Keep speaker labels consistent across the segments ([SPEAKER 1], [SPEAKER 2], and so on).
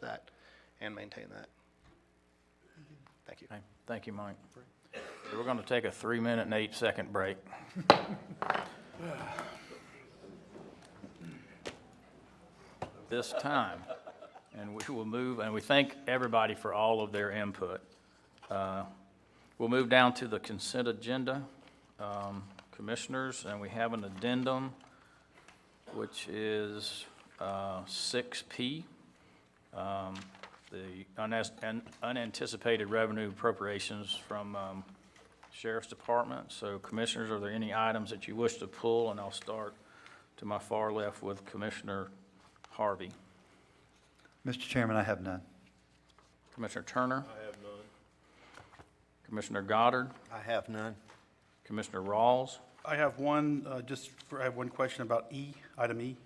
[SPEAKER 1] that and maintain that. Thank you.
[SPEAKER 2] Okay, Thank you, Mike. So We're gonna take a three-minute and eight-second break. This time, and we will move, and we thank everybody for all of their input. Uh, We'll move down to the consent agenda, um, commissioners, and we have an addendum, which is uh, six P the unas- un- unanticipated revenue appropriations from um, Sheriff's Department. So Commissioners, are there any items that you wish to pull? And I'll start to my far left with Commissioner Harvey.
[SPEAKER 3] Mr. Chairman, I have none.
[SPEAKER 2] Commissioner Turner? I have none. Commissioner Goddard?
[SPEAKER 4] I have none.
[SPEAKER 2] Commissioner Rawls?
[SPEAKER 5] I have one, uh, just, for- I have one question about E, item E.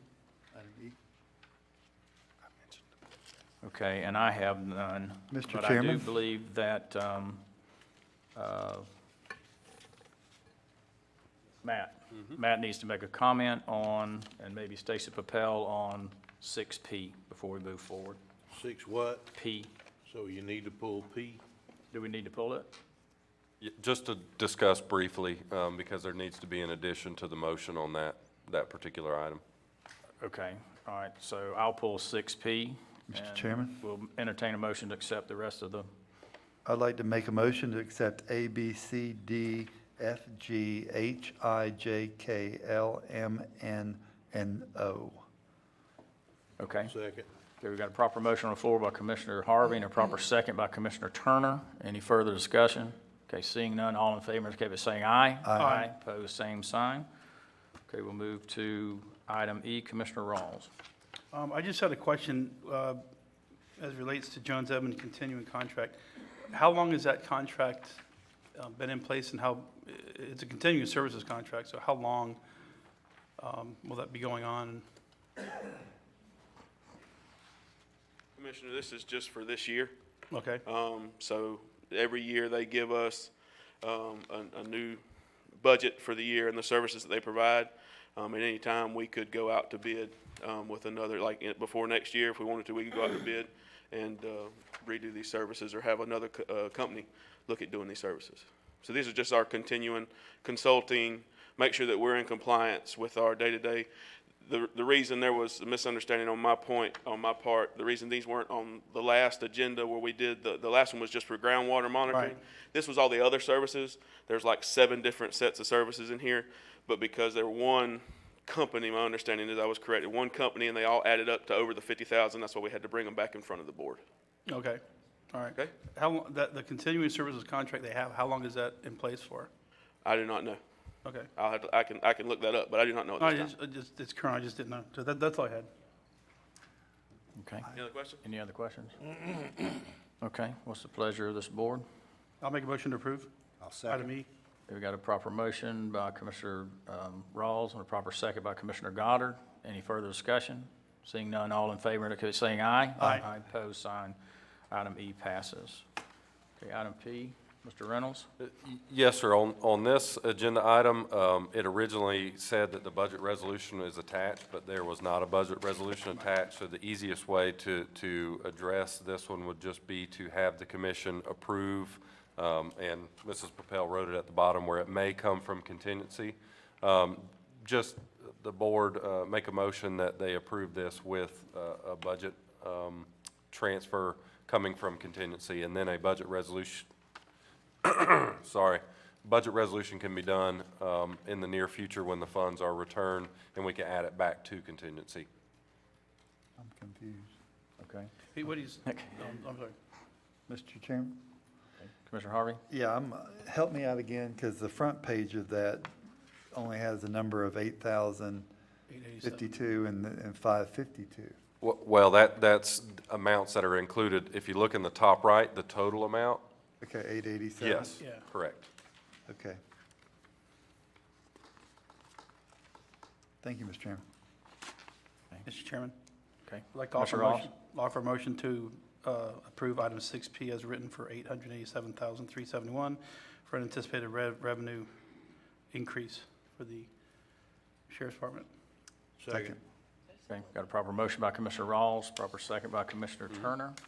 [SPEAKER 2] Okay, and I have none.
[SPEAKER 3] Mr.
[SPEAKER 2] But I do
[SPEAKER 3] Chairman?
[SPEAKER 2] believe that, um, uh, Matt, Matt needs to make a comment on, and maybe Stacy Papel on 6P before we move forward.
[SPEAKER 6] Six what?
[SPEAKER 2] P,
[SPEAKER 6] So you need to pull P?
[SPEAKER 2] do we need to pull it?
[SPEAKER 7] Y- Just to discuss briefly, um, because there needs to be an addition to the motion on that, that particular item.
[SPEAKER 2] Okay, all right, so I'll pull 6P.
[SPEAKER 3] Mr.
[SPEAKER 2] and
[SPEAKER 3] Chairman?
[SPEAKER 2] We'll entertain a motion to accept the rest of the,
[SPEAKER 3] I'd like to make a motion to accept A, B, C, D, F, G, H, I, J, K, L, M, N, and O.
[SPEAKER 2] okay?
[SPEAKER 6] Second.
[SPEAKER 2] Okay, we've got a proper motion on the floor by Commissioner Harvey and a proper second by Commissioner Turner. Any further discussion? Okay, seeing none, all in favor, indicate by saying aye. Aye. Pose same sign. Okay, we'll move to item E, Commissioner Rawls.
[SPEAKER 5] Um, I just had a question, uh, as it relates to Jones Edmond continuing contract. How long has that contract, uh, been in place and how, i- it's a continuing services contract, so how long, um, will that be going on?
[SPEAKER 8] Commissioner, this is just for this year.
[SPEAKER 5] Okay,
[SPEAKER 6] Uh,
[SPEAKER 8] Um, so every year they give us, um, a, a new budget for the year and the services that they provide. Um, at any time, we could go out to bid, um, with another, like, eh, before next year, if we wanted to, we could go out to bid and, uh, redo these services or have another, co- uh, company look at doing these services. So these are just our continuing consulting, make sure that we're in compliance with our day-to-day. The, the reason there was a misunderstanding on my point, on my part, the reason these weren't on the last agenda where we did, the, the last one was just for groundwater monitoring.
[SPEAKER 5] Right.
[SPEAKER 8] This was all the other services. There's like seven different sets of services in here, but because they're one company, my understanding is I was corrected, one company, and they all added up to over the fifty thousand, that's why we had to bring them back in front of the board.
[SPEAKER 5] okay, all right.
[SPEAKER 8] Okay.
[SPEAKER 5] How, lo- that, the continuing services contract they have, how long is that in place for?
[SPEAKER 8] I do not know.
[SPEAKER 5] Okay.
[SPEAKER 8] I'll have to, I can, I can look that up, but I do not know at
[SPEAKER 5] No, I
[SPEAKER 8] this
[SPEAKER 5] just,
[SPEAKER 8] time.
[SPEAKER 5] I just, it's current, I just didn't know. So that, that's all I had.
[SPEAKER 2] Okay,
[SPEAKER 8] Any other questions?
[SPEAKER 2] any other questions? Okay, what's the pleasure of this board?
[SPEAKER 5] I'll make a motion to approve.
[SPEAKER 4] I'll
[SPEAKER 5] Item
[SPEAKER 4] second.
[SPEAKER 5] E.
[SPEAKER 2] We've got a proper motion by Commissioner um, Rawls and a proper second by Commissioner Goddard. Any further discussion? Seeing none, all in favor, indicate by saying aye.
[SPEAKER 5] Aye.
[SPEAKER 2] Aye, pose sign. Item E passes. Okay, item P, Mr. Reynolds?
[SPEAKER 7] Y- Yes, sir. On, on this agenda item, um, it originally said that the budget resolution is attached, but there was not a budget resolution attached. So the easiest way to, to address this one would just be to have the commission approve, um, and Mrs. Papel wrote it at the bottom where it may come from contingency. Um, Just the board uh, make a motion that they approve this with uh, a budget um, transfer coming from contingency, and then a budget resolution, sorry, budget resolution can be done um, in the near future when the funds are returned, and we can add it back to contingency.
[SPEAKER 3] I'm confused.
[SPEAKER 2] Okay.
[SPEAKER 5] He, what he's, um, I'm sorry.
[SPEAKER 3] Mr. Chairman?
[SPEAKER 2] Commissioner Harvey?
[SPEAKER 3] Yeah, I'm, help me out again, because the front page of that only has a number of eight thousand fifty-two and, and five fifty-two.
[SPEAKER 7] W- Well, that, that's amounts that are included. If you look in the top right, the total amount,
[SPEAKER 3] Okay, eight eighty-seven?
[SPEAKER 7] yes,
[SPEAKER 5] Yeah.
[SPEAKER 7] correct.
[SPEAKER 3] Okay. Thank you, Mr. Chairman.
[SPEAKER 5] Mr. Chairman,
[SPEAKER 2] Okay.
[SPEAKER 5] I'd like to offer
[SPEAKER 2] Commissioner
[SPEAKER 5] a
[SPEAKER 2] Ross?
[SPEAKER 5] motion, offer a motion to uh, approve item 6P as written for 887371 for an anticipated rev- revenue increase for the Sheriff's Department.
[SPEAKER 6] Second.
[SPEAKER 5] Mm-hmm.
[SPEAKER 2] Okay, got a proper motion by Commissioner Rawls, proper second by Commissioner Turner.